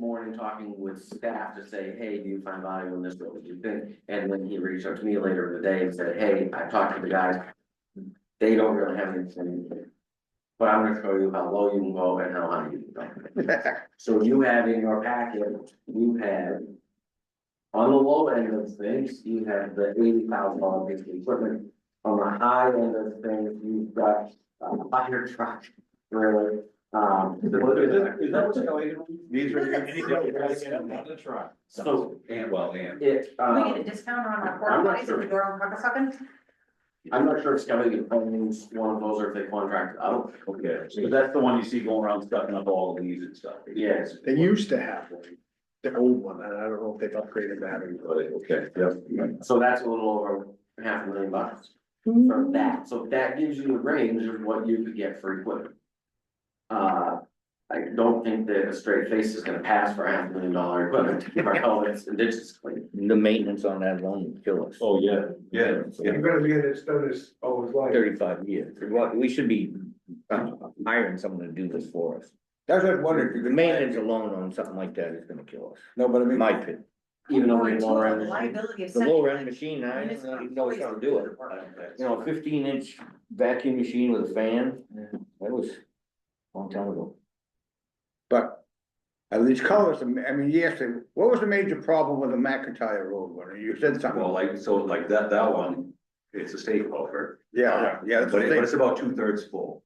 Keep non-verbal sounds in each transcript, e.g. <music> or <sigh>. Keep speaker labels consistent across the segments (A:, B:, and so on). A: morning talking with staff to say, hey, do you find value in this, what would you think? And then he reached out to me later in the day and said, hey, I talked to the guys. They don't really have anything. But I'm gonna show you how low you can go and how high you can go. So you have in your packet, you have. On the low end of things, you have the eighty thousand dollar piece of equipment. On the high end of things, you've got a fire truck, really, um.
B: These
C: are your-
B: the truck.
A: So
B: And well, and.
A: it,
C: We
A: uh,
C: get a discount on our
A: I'm
C: porta
A: not
C: potties if
A: sure.
C: we go around Cockasukun?
A: I'm not sure if Skelly owns one of those or if they contract out.
B: Okay, so that's the one you see going around stuffing up all the leaves and stuff.
A: Yes.
D: They used to have one, the old one, and I don't know if they've upgraded that or
B: But, okay, yep.
A: So that's a little over half a million bucks
C: Mm-hmm.
A: from that. So that gives you the range of what you could get for equipment. Uh, I don't think that a straight face is gonna pass for half a million dollar equipment to keep
C: <laughs>
A: our helmets and ditches clean.
E: The maintenance on that alone would kill us.
B: Oh, yeah, yeah, yeah.
E: You're
D: gonna be in this notice all his life.
E: Thirty-five years. What, we should be uh, hiring someone to do this for us. That's what I wondered. The maintenance alone on something like that is gonna kill us. No, but I mean. My pit.
A: Even though we
C: Or
A: lower
C: total
A: end.
C: Liability of
E: The
C: sending.
E: lower end machine, I don't even know it's gonna do it. You know, a fifteen inch vacuum machine with a fan, that was a long time ago.
F: But at least call us, I mean, yes, what was the major problem with the McIntyre Road one? You said
B: Well,
F: something,
B: like, so like that, that one, it's a state culvert.
F: yeah, yeah, that's
B: But
F: the
B: it- but
F: thing.
B: it's about two thirds full.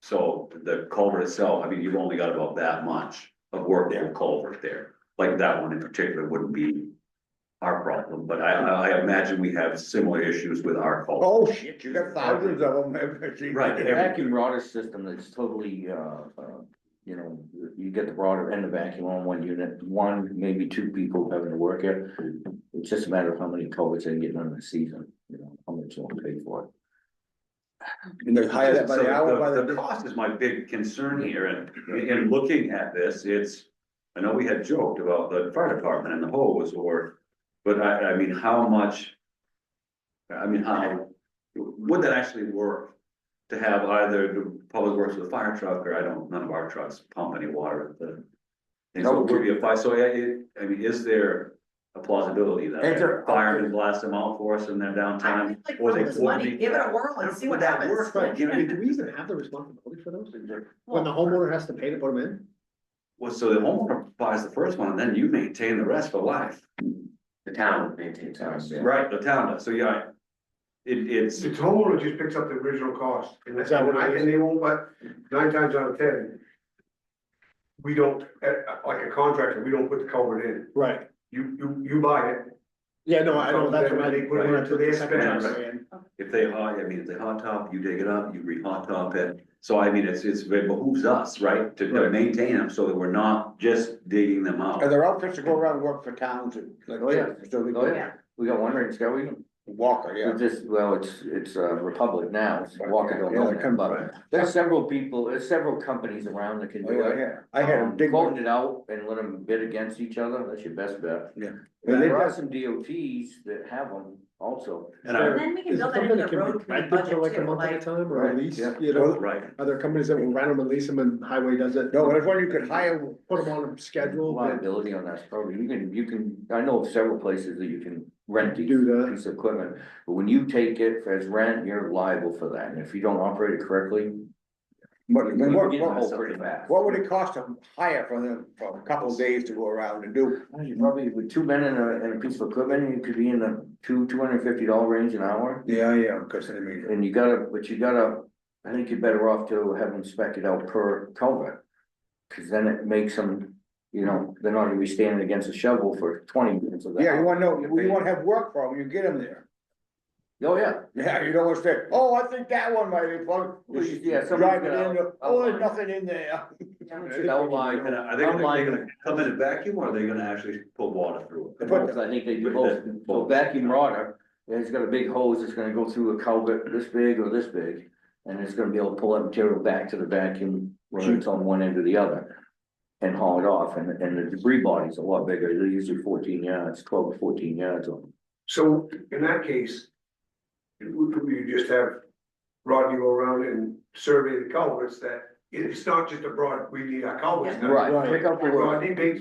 B: So the culvert itself, I mean, you've only got about that much of work on culvert there, like that one in particular wouldn't be. Our problem, but I, I imagine we have similar issues with our culvert.
F: Oh, shit, you got thousands of them. <laughs>
B: Right.
E: The vacuum rotter system that's totally, uh, uh, you know, you get the rotter and the vacuum on one unit, one, maybe two people having to work it. It's just a matter of how many culverts they get on the season, you know, how much they'll pay for it.
F: And they hire that by
B: So
F: the hour, by
B: The
F: the,
B: cost is my big concern here, and in- in looking at this, it's, I know we had joked about the fire department and the hose or, but I, I mean, how much? I mean, how, would that actually work? To have either the public works with a fire truck, or I don't, none of our trucks pump any water, at the. And so it would be a fire, so yeah, it, I mean, is there a plausibility that
E: Is there-
B: firemen blast them out for us in their
C: I
E: um,
B: downtime?
C: would like
B: or
C: all
B: they
C: this
B: would
C: money,
B: be-
C: give it a whirl and see
B: Would
C: what
B: that
C: happens.
B: work?
D: Right, you know, do we even have the responsibility for those? When the homeowner has to pay to put them in?
B: Well, so the homeowner buys the first one and then you maintain the rest for life.
A: The town maintains ours.
B: Right. The town does, so yeah. It, it's,
G: The homeowner just picks up the original cost, and
D: Is
G: that's,
D: that what
G: and
D: it
G: I-
D: is?
G: and they won't, but nine times out of ten. We don't, uh, uh, like a contractor, we don't put the culvert in,
D: Right.
G: you, you, you buy it,
D: Yeah, no, I don't, that's what I
G: They
D: think.
G: put it into their
B: spend.
D: Right.
B: if they hot, I mean, if they hot top, you dig it up, you re-hot top it. So I mean, it's, it's, it behooves us, right, to, to
D: Right.
B: maintain them so that we're not just digging them out.
F: are there outfits that go around and work for towns and like.
E: Oh, yeah.
F: So they
E: Oh,
F: go,
E: yeah, we got one right in Scotty.
F: Walker, yeah.
E: It's just, well, it's, it's uh, Republic now, it's Walker Oh, don't
F: Yeah,
E: know
F: they
E: that,
F: come-
E: but there's several people, there's several companies around that can
F: Oh,
E: do
F: yeah,
E: it.
F: yeah, I had a
E: Um,
F: big one,
E: Quoting it out and let them bid against each other, that's your best bet.
F: Yeah.
E: And there are some DOTs that have them also.
B: And I,
C: And then we can
D: Is it
C: build that
D: something
C: into
D: that
C: the
D: can
C: road
D: be
C: committee
D: rented for
C: budget
D: like a
C: too,
D: month at a
C: like,
D: time or a
F: Right,
D: lease,
E: yeah.
D: you know?
B: right,
D: Other companies that will rent them and lease them and highway does it.
F: no, there's one you could hire,
D: Put them on a schedule and
E: Liability on that program, you can, you can, I know of several places that you can rent these
D: do that.
E: piece of equipment. But when you take it as rent, you're liable for that, and if you don't operate it correctly,
F: but
E: you
F: but
E: can
F: what,
E: get in
F: what,
E: hole pretty fast.
F: what would it cost to hire for them, for a couple of days to go around and do?
E: You Probably with two men and a, and a piece of equipment, you could be in the two, two hundred and fifty dollar range an hour.
F: Yeah, yeah, because I mean.
E: And you gotta, but you gotta, I think you're better off to have them spec it out per culvert. Cause then it makes them, you know, they're not gonna be standing against a shovel for twenty minutes of that.
F: Yeah, you wanna know, you wanna have work for them, you get them there.
E: Oh, yeah,
F: Yeah, you don't wanna say, oh, I think that one might be fun.
E: Well, you- yeah,
F: Just
E: somebody's
F: Drive it
E: gonna
F: in, oh,
E: outline.
F: there's nothing in there.
E: should outline-
B: and are they gonna, they gonna come in a vacuum or are they gonna actually put water through it?
F: They put-
E: Because I think they do both, so vacuum rotter, it's got a big hose, that's gonna go through a culvert this big or this big. And it's gonna be able to pull that material back to the vacuum, whether it's on one end or the other. And haul it off, and, and the debris body's a lot bigger, they're usually fourteen yards, twelve to fourteen yards on. them.
G: so in that case. We, we just have Rodney go around and survey the culverts that, it's not just a broad, we need our culverts. now.
E: Right, pick up the word.
G: Rodney makes